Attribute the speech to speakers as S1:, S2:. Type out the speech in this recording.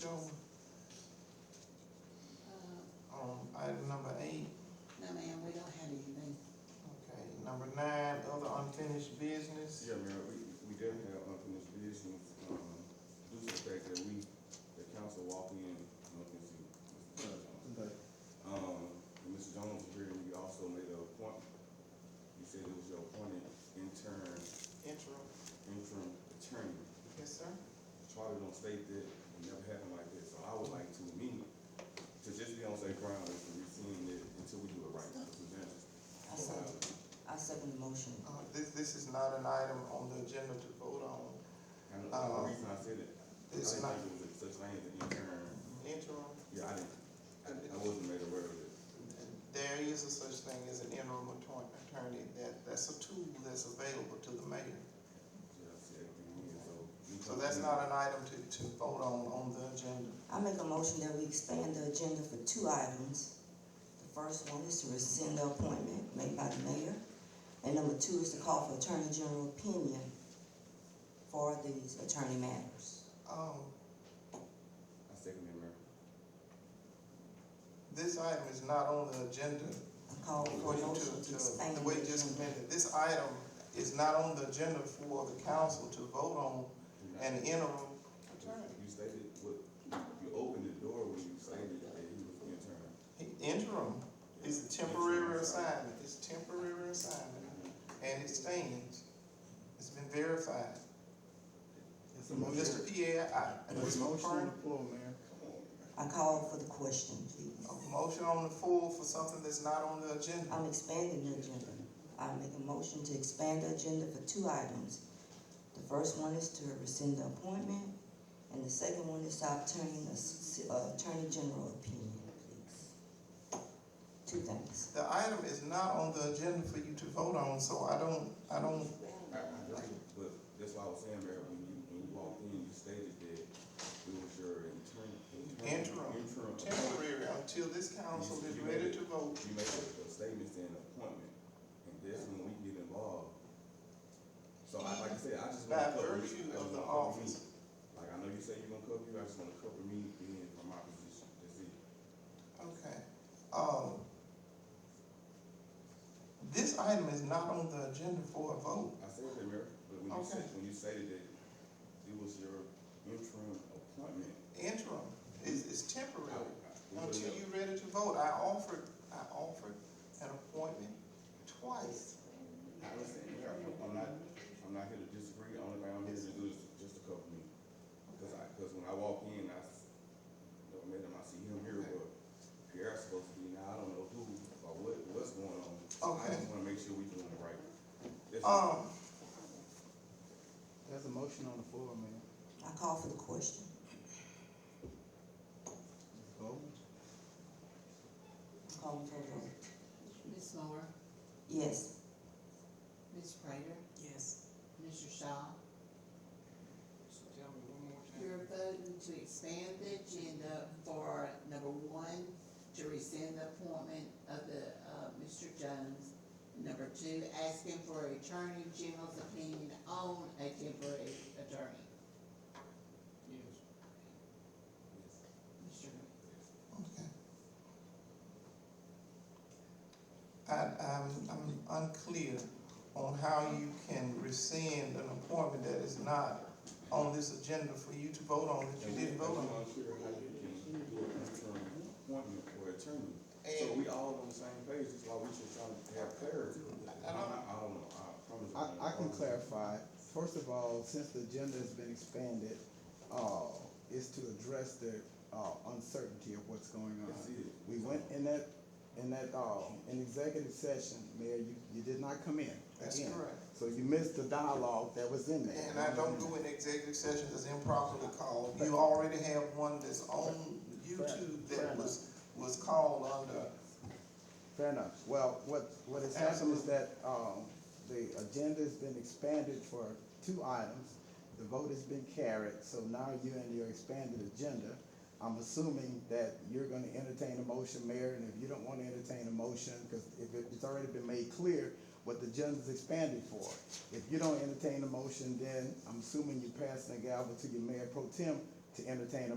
S1: Joe,
S2: Uh,
S1: on Um, item number eight?
S2: No, ma'am, we don't have anything.
S1: Okay, number nine, other unfinished business?
S3: Yeah, Mayor, we, we did have unfinished business, um, due to the fact that we, the council walked in, I'm looking to see, Mr. Jones. Um, and Mr. Jones was here, and you also made an appointment. You said it was your appointed intern,
S1: Intro,
S3: interim attorney.
S1: yes, sir?
S3: Charlie don't state that, it never happened like this, so I would like to, me, to just be on safe ground, is to rescind it until we do it right. Mr. Jones.
S4: I second, I second the motion.
S1: Uh, this, this is not an item on the agenda to vote on,
S3: And the only reason I said it, I
S1: It's
S3: didn't
S1: not-
S3: think it was such thing as an intern.
S1: interim.
S3: Yeah, I didn't, I I wasn't made aware of it.
S1: There is a such thing as an interim attorney, attorney, that, that's a tool that's available to the mayor.
S3: Yeah, I said, mm, so.
S1: So that's not an item to, to vote on, on the agenda.
S4: I make a motion that we expand the agenda for two items. The first one is to rescind the appointment made by the mayor. And number two is to call for Attorney General opinion for these attorney matters.
S1: Um,
S3: I second that, Mayor.
S1: this item is not on the agenda
S4: I call for
S1: for
S4: a
S1: you
S4: motion
S1: to,
S4: to
S1: to,
S4: expand
S1: the
S4: the
S1: way just a
S4: agenda.
S1: minute, this item is not on the agenda for the council to vote on an interim attorney.
S3: You stated, what, you opened the door when you stated that he was the intern.
S1: Interim is a temporary assignment, it's temporary assignment, and it stands, it's been verified. Mr. Pierre, I,
S5: There's a
S1: Mr.
S5: motion on
S1: Fern,
S5: the floor, Mayor.
S4: I call for the question, please.
S1: a motion on the floor for something that's not on the agenda.
S4: I'm expanding the agenda. I make a motion to expand the agenda for two items. The first one is to rescind the appointment, and the second one is to obtain a s- uh, Attorney General opinion, please. Two things.
S1: The item is not on the agenda for you to vote on, so I don't, I don't,
S3: I, I like it, but that's why I was saying, Mayor, when you, when you walked in, you stated that it was your intern.
S1: Interim.
S3: Interim.
S1: temporary until this council is ready to vote.
S3: You make a a statement saying appointment, and that's when we get involved. So I, like I said, I just. wanna
S1: By
S3: cover me.
S1: virtue
S3: I just
S1: of the
S3: wanna cover me.
S1: office.
S3: Like, I know you say you're gonna cover you, I just wanna cover me being from my position, that's it.
S1: Okay, um, this item is not on the agenda for a vote.
S3: I said that, Mayor, but when you said,
S1: Okay.
S3: when you stated that it was your interim appointment.
S1: Interim is, is
S3: I-
S1: temporary
S3: I- Oh, we would've
S1: until
S3: never-
S1: you're ready to vote. I offered, I offered an appointment twice.
S3: I was saying, Mayor, I'm- I'm not, I'm not here to disagree, the only thing I'm here to do is just to cover me. Cause I, cause when I walk in, I, s- you know, madam, I see him here, but Pierre's supposed to be, now I don't know who or what, what's going on. So I
S1: Okay.
S3: just wanna make sure we doing it right. That's all.
S1: Um,
S5: There's a motion on the floor, Mayor.
S4: I call for the question.
S5: Vote.
S4: Call for a vote.
S6: Ms. Moore,
S4: Yes.
S6: Ms. Prater,
S4: Yes.
S6: Mr. Shaw,
S1: tell me one more time.
S6: you're voting to expand the agenda for number one, to rescind the appointment of the, uh, Mr. Jones. Number two, asking for Attorney General's opinion on a temporary attorney. Yes. Mr.
S1: Okay. I, I'm, I'm unclear on how you can rescind an appointment that is not on this agenda for you to vote on, that you didn't vote on.
S3: I'm unclear how you can do an interim appointment for attorney. So
S1: And-
S3: we all on the same page, that's why we should try to have clarity.
S1: I- I don't-
S3: I I don't know, I promise. you,
S5: I, I can
S3: promise.
S5: clarify. First of all, since the agenda has been expanded, uh, is to address the, uh, uncertainty of what's going on.
S3: That's it.
S5: We went in that, in that, uh, in executive session, Mayor, you, you did not come in.
S1: That's
S5: again.
S1: correct.
S5: So you missed the dialogue that was in there.
S1: And I don't do an executive session that's improperly called. You already have one that's on YouTube that was, was called under,
S5: Fair enough. Well, what, what has happened is
S1: Absolutely.
S5: that, um, the agenda's been expanded for two items. The vote has been carried, so now you're in your expanded agenda. I'm assuming that you're gonna entertain a motion, Mayor, and if you don't wanna entertain a motion, because if it- it's already been made clear what the agenda's expanded for. If you don't entertain a motion, then I'm assuming you're passing the gavel to your Mayor Pro Tem to entertain a